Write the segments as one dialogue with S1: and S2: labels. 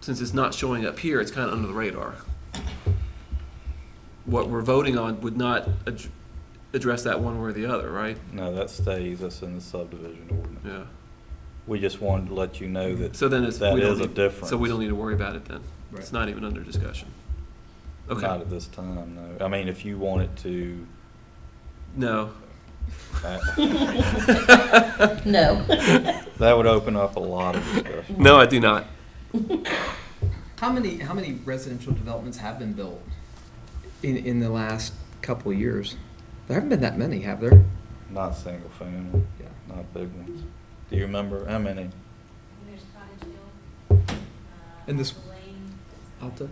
S1: since it's not showing up here, it's kind of under the radar. What we're voting on would not ad- address that one way or the other, right?
S2: No, that stays, that's in the subdivision ordinance.
S1: Yeah.
S2: We just wanted to let you know that
S1: So then it's.
S2: that
S1: we don't
S2: is a
S1: need-
S2: difference.
S1: So we don't need to worry about it then? It's
S3: Right.
S1: not even under discussion?
S2: Not
S1: Okay,
S2: at this time, no. I mean, if you wanted to,
S1: no.
S2: that
S4: No.
S2: that would open up a lot of discussion.
S1: No, I do not.
S3: How many, how many residential developments have been built in, in the last couple of years? There haven't been that many, have there?
S2: Not single family,
S3: Yeah.
S2: not big ones. Do you remember how many?
S5: There's Cottage Hill. uh,
S3: And this-
S5: Alpha Lane.
S3: Alta?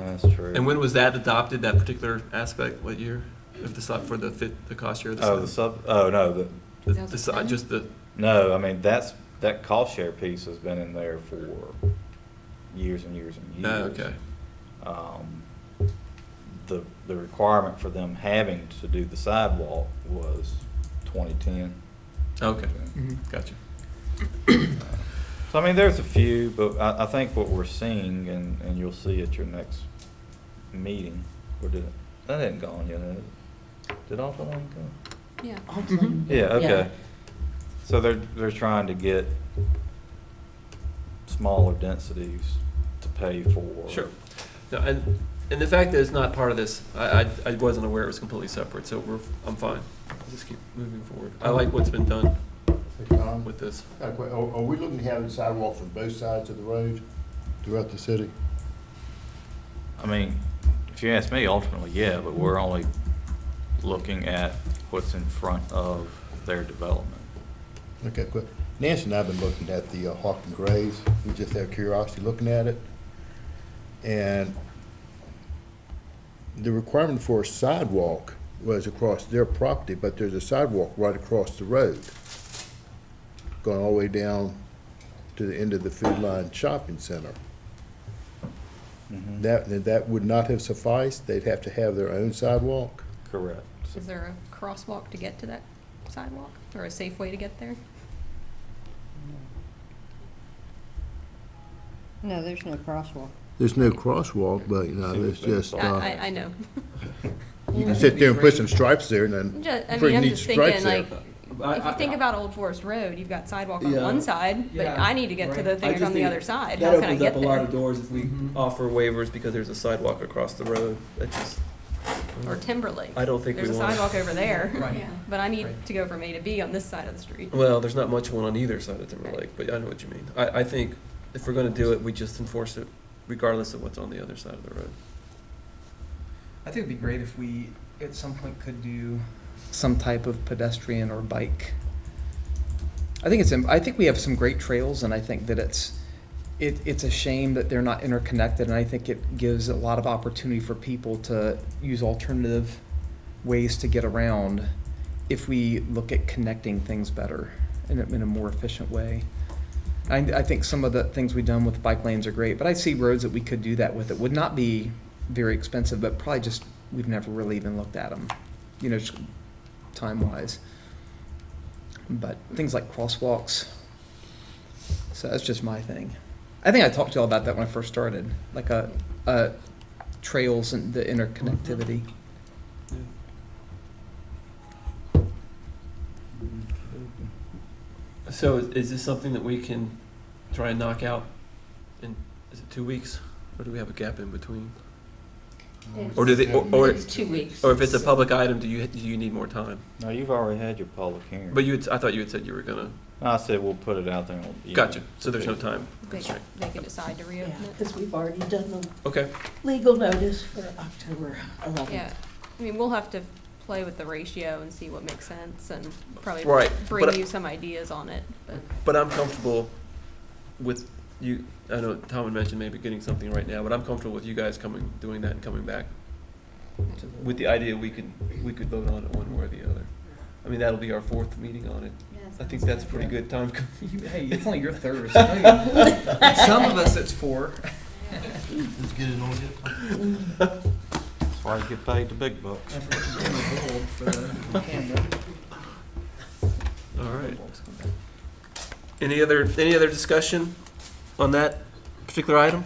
S2: That's true.
S1: Mm-hmm. And when was that adopted, that particular aspect? What year? If the, sub- for the fit, the cost share?
S2: Oh, the sub, oh, no, the,
S1: The- the si- Just the,
S2: no, I mean, that's, that cost share piece has been in there for years and years and years.
S1: oh, okay.
S2: um, the, the requirement for them having to do the sidewalk was 2010.
S1: Okay,
S3: Mhm.
S1: gotcha.
S2: So, I mean, there's a few, but I, I think what we're seeing, and, and you'll see at your next meeting, or did it, that hadn't gone yet, had it? Did Alta Lane go?
S5: Yeah.
S3: Mhm.
S2: Mm-hmm. Yeah, okay. So they're, they're trying to get smaller densities to pay for.
S1: Sure. No, and, and the fact that it's not part of this, I, I, I wasn't aware it was completely separate, so we're, I'm fine. Just keep moving forward. I like what's been done
S6: Hey, Tom,
S1: with this.
S6: got a que- Are, are we looking to have sidewalks on both sides of the road throughout the city?
S2: I mean, if you ask me, ultimately, yeah, but we're only looking at what's in front of their development.
S6: Okay, quick. Nancy and I have been looking at the uh, Hawking Grays. We just have curiosity looking at it. And the requirement for a sidewalk was across their property, but there's a sidewalk right across the road, going all the way down to the end of the Food Line Shopping Center.
S2: Mm-hmm.
S6: That, that would not have sufficed. They'd have to have their own sidewalk.
S2: Correct.
S7: Is there a crosswalk to get to that sidewalk or a safe way to get there?
S4: No, there's no crosswalk.
S6: There's no crosswalk, but, you know,
S2: See
S6: there's
S2: what's been
S6: just,
S2: thought.
S7: I,
S6: uh,
S7: I, I know.
S6: you can sit there and put some stripes there and
S7: I'm
S6: then.
S7: ju- I
S6: bring
S7: mean, I'm
S6: neat
S7: just
S6: stripes
S7: thinking like,
S6: there.
S7: if you think about Old Forest Road, you've got sidewalk on
S8: Yeah.
S7: one side, but
S3: Yeah,
S7: I need to get to
S3: right.
S7: the
S3: I
S7: thing
S8: just
S7: on the
S8: think
S7: other side.
S8: That
S7: How can I
S8: opens up
S7: get
S8: a lot
S7: there?
S8: of doors if we
S1: Mm-hmm.
S3: Mhm.
S8: offer waivers because there's a sidewalk across the road. That just,
S7: Or Timberlake.
S8: I don't think we
S7: There's a
S8: wanna-
S7: sidewalk over there,
S3: Right.
S5: Yeah.
S7: but I need
S3: Right.
S7: to go from A to B on this side of the street.
S8: well, there's not much one on either side of Timberlake, but I know what you mean. I, I think if we're gonna do it, we just enforce it regardless of what's on the other side of the road.
S3: I think it'd be great if we, at some point, could do some type of pedestrian or bike. I think it's, im- I think we have some great trails, and I think that it's, it, it's a shame that they're not interconnected, and I think it gives a lot of opportunity for people to use alternative ways to get around if we look at connecting things better in a, in a more efficient way. I, I think some of the things we've done with bike lanes are great, but I see roads that we could do that with. It would not be very expensive, but probably just, we've never really even looked at them, you know, just time-wise. But things like crosswalks, so that's just my thing. I think I talked to y'all about that when I first started, like a, a trails and the interconnectivity.
S1: So is- is this something that we can try and knock out in, is it two weeks? Or do we have a gap in between? Or do they, or, or-
S4: It's two weeks.
S1: or if it's a public item, do you, do you need more time?
S2: No, you've already had your public hearing.
S1: But you, had- I thought you had said you were gonna,
S2: I said we'll put it out there. on the-
S1: gotcha, so there's no time
S7: They,
S1: constraint.
S7: they can decide to reopen it.
S9: Because we've already done the
S1: Okay,
S9: legal notice for October 11th.
S7: Yeah, I mean, we'll have to play with the ratio and see what makes sense and probably
S1: Right, but
S7: bring
S1: I-
S7: you some ideas on it, but.
S1: but I'm comfortable with you, I know Tom had mentioned maybe getting something right now, but I'm comfortable with you guys coming, doing that and coming back with the idea we could, we could vote on it one way or the other. I mean, that'll be our fourth meeting on it. I think that's a pretty good time.
S3: Hey, it's only your third. so no, you- Some of us, it's four.
S6: Let's get it on here.
S2: That's why you get paid the big bucks.
S3: I forgot to bring the gold for the camera.
S1: All right. Any other, any other discussion on that particular item?